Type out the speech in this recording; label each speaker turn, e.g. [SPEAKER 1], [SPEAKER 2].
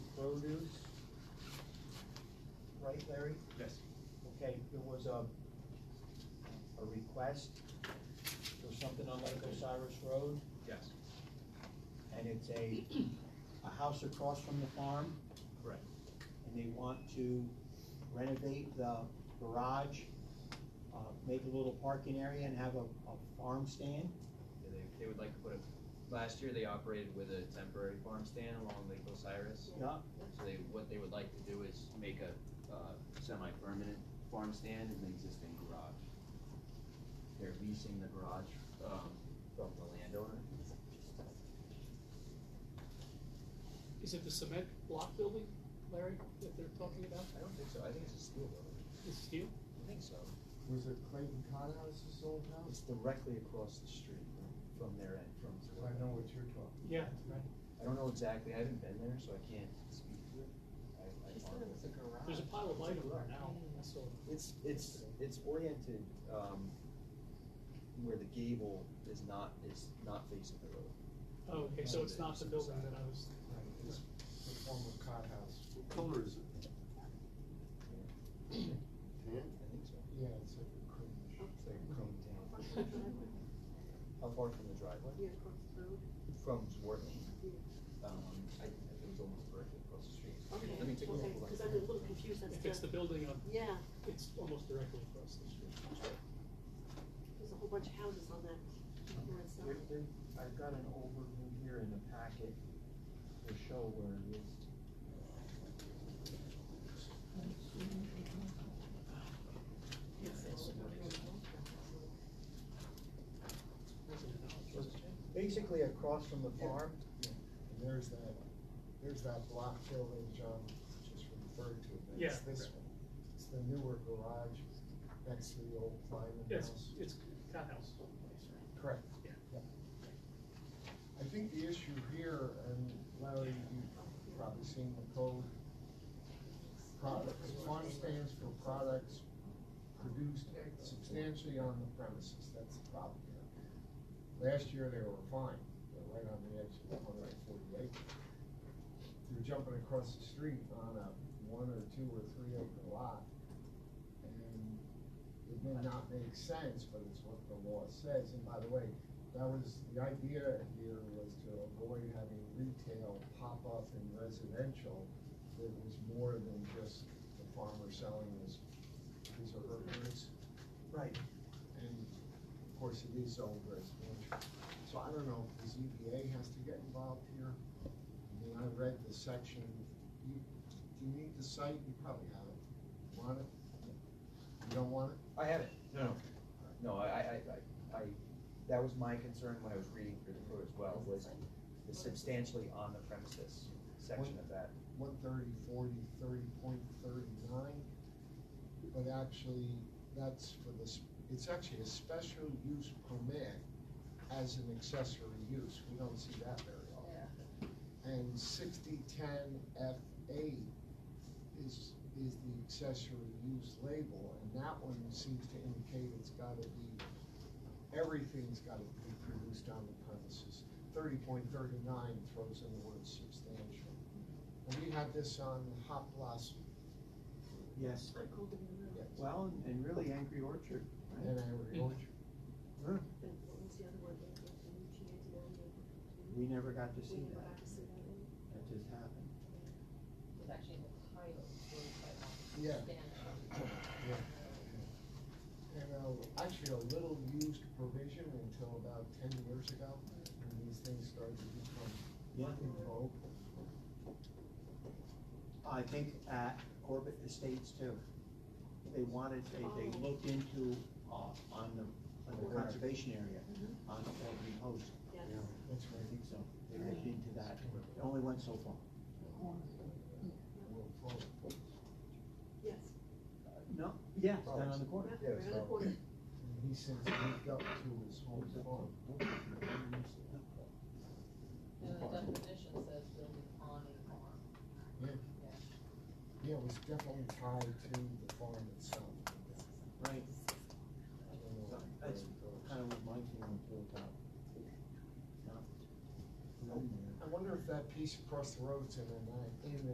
[SPEAKER 1] dues? Right, Larry?
[SPEAKER 2] Yes.
[SPEAKER 1] Okay, there was a, a request for something on Lake Osiris Road,
[SPEAKER 2] Yes,
[SPEAKER 1] and it's a, a house across from the farm,
[SPEAKER 2] correct.
[SPEAKER 1] and they want to renovate the garage, uh, make a little parking area and have a, a farm stand.
[SPEAKER 3] Yeah, They, they would like to put a, last year they operated with a temporary farm stand along Lake Osiris.
[SPEAKER 1] Yeah,
[SPEAKER 3] So they, what they would like to do is make a, uh, semi-permanent farm stand in the existing garage. They're leasing the garage, um, from the landowner.
[SPEAKER 4] Is it the cement block building, Larry, that they're talking about?
[SPEAKER 3] I don't think so, I think it's a steel building.
[SPEAKER 4] Is it steel?
[SPEAKER 3] I think so.
[SPEAKER 5] Was it Clayton Conhouse's old house?
[SPEAKER 3] It's directly across the street from their end, from.
[SPEAKER 5] I know what you're talking.
[SPEAKER 4] Yeah, right.
[SPEAKER 3] I don't know exactly, I haven't been there, so I can't speak to it. I, I.
[SPEAKER 6] thought it was a garage.
[SPEAKER 4] There's a pile of items there now, I saw.
[SPEAKER 3] It's, it's, it's oriented, um, where the gable is not, is not facing the road.
[SPEAKER 4] Oh, okay, so it's not the building that I was,
[SPEAKER 5] Right, it's the former Conhouse.
[SPEAKER 7] What color is it? Tan?
[SPEAKER 3] I think so.
[SPEAKER 5] Yeah, it's like a creamish.
[SPEAKER 3] It's like a cone down.
[SPEAKER 6] Across the driveway,
[SPEAKER 3] How far from the driveway?
[SPEAKER 6] yeah, across the road.
[SPEAKER 3] From Zwartney. Um, I, it was almost directly across the street.
[SPEAKER 6] Okay,
[SPEAKER 3] Let me take a
[SPEAKER 6] okay,
[SPEAKER 3] look.
[SPEAKER 6] because I'm a little confused as to.
[SPEAKER 4] if it's the building on,
[SPEAKER 6] Yeah,
[SPEAKER 4] it's almost directly across the street.
[SPEAKER 6] there's a whole bunch of houses on that north
[SPEAKER 1] There-
[SPEAKER 6] side.
[SPEAKER 1] there- I've got an overview here in the packet to show where it is. So it's Basically across from the farm,
[SPEAKER 5] And there's that, there's that block building John just referred to, but
[SPEAKER 4] Yeah.
[SPEAKER 5] it's this one. It's the newer garage next to the old Lyman
[SPEAKER 4] Yeah, It's,
[SPEAKER 5] house.
[SPEAKER 4] it's Conhouse.
[SPEAKER 5] Correct.
[SPEAKER 4] Yeah.
[SPEAKER 5] I think the issue here, and Larry, you've probably seen the code, products, farm stands for products produced substantially on the premises, that's the problem here. Last year, they were fine, they're right on the edge of one hundred and forty acre. They're jumping across the street on a one or two or three acre lot. And it may not make sense, but it's what the law says, and by the way, that was, the idea here was to avoid having retail pop up in residential. It was more than just the farmer selling his, his or her goods,
[SPEAKER 1] right,
[SPEAKER 5] and of course it is owned residential. So I don't know if the ZBA has to get involved here. I mean, I read the section, you, do you need the site? You probably have it. Want it? You don't want it?
[SPEAKER 3] I have it, no, no. No, I, I, I, I, that was my concern when I was reading through the code as well, was the substantially on the premises section of that.
[SPEAKER 5] one thirty, forty, thirty point thirty-nine. But actually, that's for this, it's actually a special use permit as an accessory use. We don't see that very often. And sixty-ten F eight is, is the accessory use label, and that one seems to indicate it's gotta be, everything's gotta be produced on the premises. Thirty point thirty-nine throws in the word substantial. And we had this on Hot Blossom.
[SPEAKER 1] yes.
[SPEAKER 6] I called them in the-
[SPEAKER 5] yes,
[SPEAKER 1] Well, and- and really Angry Orchard, right?
[SPEAKER 5] And Angry Orchard.
[SPEAKER 6] but what was the other word? Like, like, you can't do that,
[SPEAKER 1] We never got to
[SPEAKER 6] you
[SPEAKER 1] see
[SPEAKER 6] can't do
[SPEAKER 1] that,
[SPEAKER 6] that. We never got to see that one.
[SPEAKER 1] that just happened.
[SPEAKER 8] was actually in the title, so I
[SPEAKER 5] Yeah.
[SPEAKER 8] don't understand.
[SPEAKER 5] And, uh, actually a little used provision until about ten years ago, when these things started to become in vogue.
[SPEAKER 1] I think at Orbit Estates too. They wanted, they, they looked into, uh, on the, on the conservation area, on Orbit Post.
[SPEAKER 6] Yes.
[SPEAKER 5] That's
[SPEAKER 1] I think so. They looked into that. It only went so far.
[SPEAKER 5] right.
[SPEAKER 6] Yes,
[SPEAKER 1] No, yeah, it's down on the corner.
[SPEAKER 6] yeah, around the corner.
[SPEAKER 5] And he since moved up to his home farm.
[SPEAKER 8] And the definition says building on a farm.
[SPEAKER 5] Yeah. Yeah, it was definitely tied to the farm itself.
[SPEAKER 1] Right,
[SPEAKER 5] I don't know where
[SPEAKER 1] that's
[SPEAKER 5] it goes.
[SPEAKER 1] kind of what my feeling was about. Not-
[SPEAKER 5] I wonder if that piece across the road's in an, in